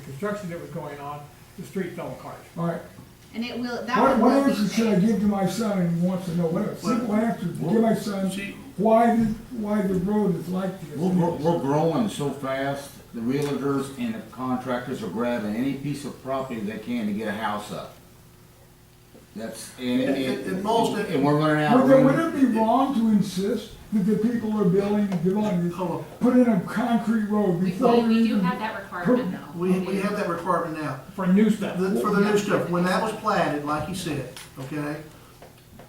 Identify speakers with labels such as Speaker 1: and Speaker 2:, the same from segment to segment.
Speaker 1: construction that was going on, the street fell apart.
Speaker 2: All right,
Speaker 3: And it will, that
Speaker 2: what,
Speaker 3: one
Speaker 2: what
Speaker 3: will be
Speaker 2: answer should I
Speaker 3: saved.
Speaker 2: give to my son, and he wants to know, what, a simple answer, to give my son,
Speaker 4: See,
Speaker 2: why, the- why the road is like this.
Speaker 5: We're, gro- we're growing so fast, the realtors and the contractors are grabbing any piece of property they can to get a house up. That's, and,
Speaker 4: And-
Speaker 5: and.
Speaker 4: and most-
Speaker 5: And we're running out of
Speaker 2: Would it, would
Speaker 5: room.
Speaker 2: it be wrong to insist that the people who are building, developing,
Speaker 4: Hello.
Speaker 2: put in a concrete road
Speaker 6: We,
Speaker 2: before
Speaker 6: we
Speaker 2: we
Speaker 6: do
Speaker 2: even
Speaker 6: have that requirement though.
Speaker 4: we, we have that requirement now.
Speaker 1: For new stuff,
Speaker 4: The- For the new stuff, when that was platted, like you said, okay,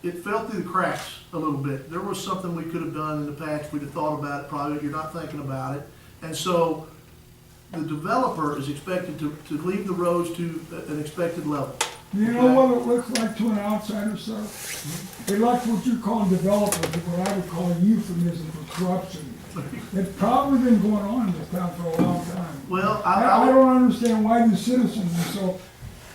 Speaker 4: it fell through the cracks a little bit. There was something we could have done in the past, we'd have thought about it, probably, you're not thinking about it. And so the developer is expected to, to leave the roads to a- an expected level.
Speaker 2: You know what it looks like to an outsider, sir? They like what you call developers, but what I would call euphemism for corruption. It's probably been going on in this town for a long time.
Speaker 4: Well, I,
Speaker 2: I, I
Speaker 4: I,
Speaker 2: don't understand why the citizens are so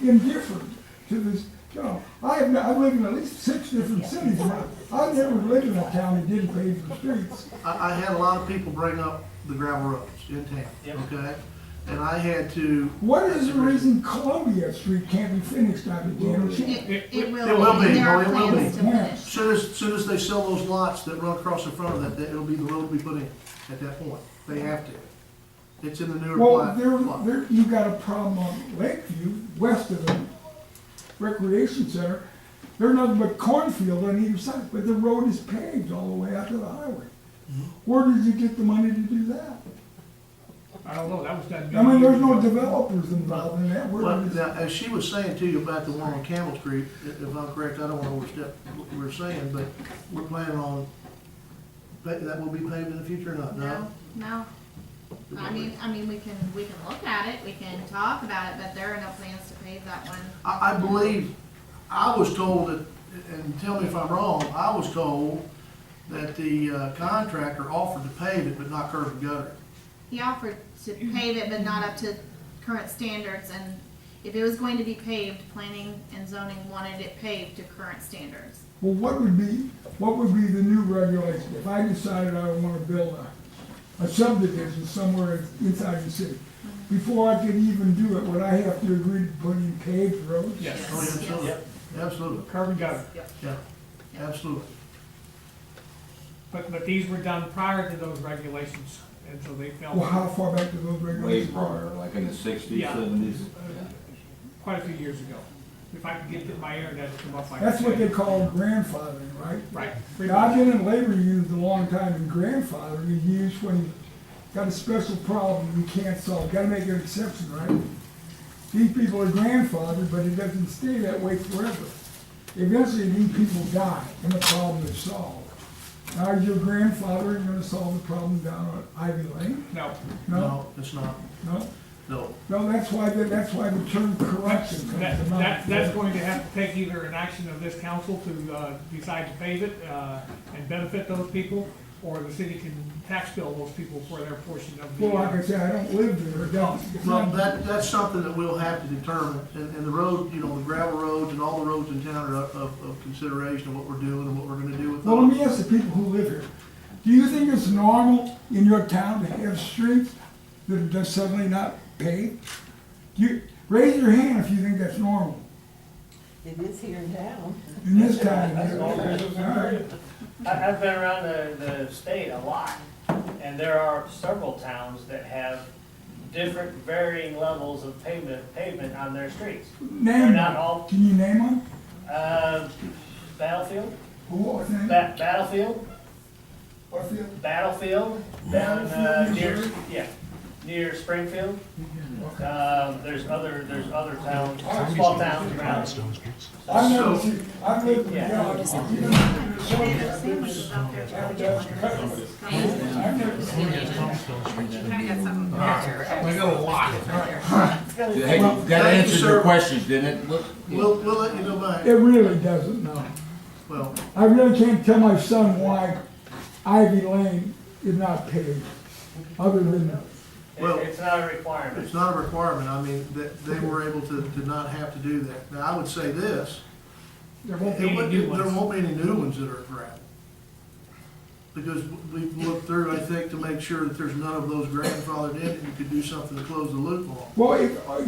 Speaker 2: indifferent to this, you know, I have, I've lived in at least six different cities, but I've never lived in a town that didn't pave the streets.
Speaker 4: I, I had a lot of people bring up the gravel roads in town,
Speaker 1: Yep.
Speaker 4: okay? And I had to,
Speaker 2: What is the reason Columbia Street can't be finished out of Daniel Street?
Speaker 3: It, it will.
Speaker 4: It will be.
Speaker 3: and There are
Speaker 4: No, it will
Speaker 3: plans to
Speaker 2: be. Yeah.
Speaker 3: finish.
Speaker 4: soon as, soon as they sell those lots that run across the front of that, that it'll be the road we put in at that point. They have to. It's in the newer
Speaker 2: Well,
Speaker 4: plot.
Speaker 2: there,
Speaker 4: plot.
Speaker 2: there, you got a problem on Lakeview, west of the recreation center. There's nothing but cornfield on either side, but the road is paved all the way out to the highway. Where did you get the money to do that?
Speaker 1: I don't know, that was done.
Speaker 2: I mean,
Speaker 1: many
Speaker 2: there's no
Speaker 1: years ago.
Speaker 2: developers involved in that. Where
Speaker 4: Well,
Speaker 2: is-
Speaker 4: now, as she was saying to you about the one on Campbell Street, i- if I'm correct, I don't wanna overstep what we were saying, but we're planning on, that that will be paved in the future or not,
Speaker 3: No,
Speaker 4: no?
Speaker 3: no. I mean, I mean, we can, we can look at it, we can talk about it, but there are no plans to pave that one.
Speaker 4: I, I believe, I was told that, and tell me if I'm wrong, I was told that the uh, contractor offered to pave it, but not curb and gutter.
Speaker 3: He offered to pave it, but not up to current standards, and if it was going to be paved, planning and zoning wanted it paved to current standards.
Speaker 2: Well, what would be, what would be the new regulation if I decided I want to build a, a subdivision somewhere inside the city? Before I could even do it, would I have to agree to put in paved roads?
Speaker 1: Yes,
Speaker 4: Oh,
Speaker 3: Yes,
Speaker 4: absolutely,
Speaker 1: yes.
Speaker 4: absolutely,
Speaker 1: curb and gutter,
Speaker 4: yeah, absolutely.
Speaker 1: but, but these were done prior to those regulations, and so they fell
Speaker 2: Well, how far back do those
Speaker 5: Way
Speaker 2: regulations? go?
Speaker 5: prior, like in the sixties,
Speaker 1: Yeah.
Speaker 5: seventies.
Speaker 1: quite a few years ago. If I could get my internet to come up, I could.
Speaker 2: That's what
Speaker 1: say.
Speaker 2: they call grandfathering, right?
Speaker 1: Right.
Speaker 2: Now, I've been in labor unions a long time, and grandfathering is used when you got a special problem you can't solve, gotta make an exception, right? These people are grandfathered, but it doesn't stay that way forever. Eventually, these people die, and the problem is solved. Now, is your grandfather gonna solve the problem down on Ivy Lane?
Speaker 1: No,
Speaker 2: No,
Speaker 4: No, it's not,
Speaker 2: no,
Speaker 4: no.
Speaker 2: no, that's why, the- that's why the term corruption comes
Speaker 1: that,
Speaker 2: about.
Speaker 1: that, that's going to have to take either an action of this council to, uh, decide to pave it, uh, and benefit those people, or the city can tax bill those people for their portion of the.
Speaker 2: Well, like
Speaker 1: uh,
Speaker 2: I said, I don't live there, don't. It's
Speaker 4: Well,
Speaker 2: not-
Speaker 4: that, that's something that we'll have to determine, and, and the road, you know, the gravel roads and all the roads in town are of, of consideration of what we're doing and what we're gonna do with
Speaker 2: Well, let
Speaker 4: them.
Speaker 2: me ask the people who live here, do you think it's normal in your town to have streets that are just suddenly not paved? You, raise your hand if you think that's normal
Speaker 7: It is here now.
Speaker 2: in this town.
Speaker 8: That's all there is.
Speaker 2: Alright.
Speaker 8: I- I've been around the, the state a lot, and there are several towns that have different varying levels of pavement, pavement on their streets. They're
Speaker 2: Name
Speaker 8: not
Speaker 2: one.
Speaker 8: all,
Speaker 2: Can you name one?
Speaker 8: uh, Battlefield,
Speaker 2: Who was the name?
Speaker 8: Ba- Battlefield,
Speaker 2: What's the other-
Speaker 8: Battlefield, down, uh,
Speaker 2: Battlefield,
Speaker 8: near,
Speaker 2: Missouri?
Speaker 8: yeah, near Springfield. Um, there's other, there's other towns, small towns around.
Speaker 2: I've never seen, I've lived,
Speaker 8: Yeah.
Speaker 2: yeah, I've you know, so-
Speaker 3: They have sandwiches out there.
Speaker 2: I've never- I've never seen
Speaker 5: Hey, that
Speaker 4: thank you,
Speaker 5: answered
Speaker 4: sir.
Speaker 5: your questions, didn't it? Look,
Speaker 4: We'll, we'll let you know by,
Speaker 2: It really doesn't, no.
Speaker 4: well,
Speaker 2: I really can't tell my son why Ivy Lane is not paved, other than
Speaker 8: It-
Speaker 4: Well-
Speaker 8: It's not a requirement.
Speaker 4: it's not a requirement, I mean, that, they were able to, to not have to do that. Now, I would say this,
Speaker 1: There won't be
Speaker 4: There
Speaker 1: any
Speaker 4: won't,
Speaker 1: new
Speaker 4: there
Speaker 1: ones.
Speaker 4: won't be any new ones that are gravel. Because we've looked through, I think, to make sure that there's none of those grandfathered in, and you could do something to close the loophole.
Speaker 2: Well, if,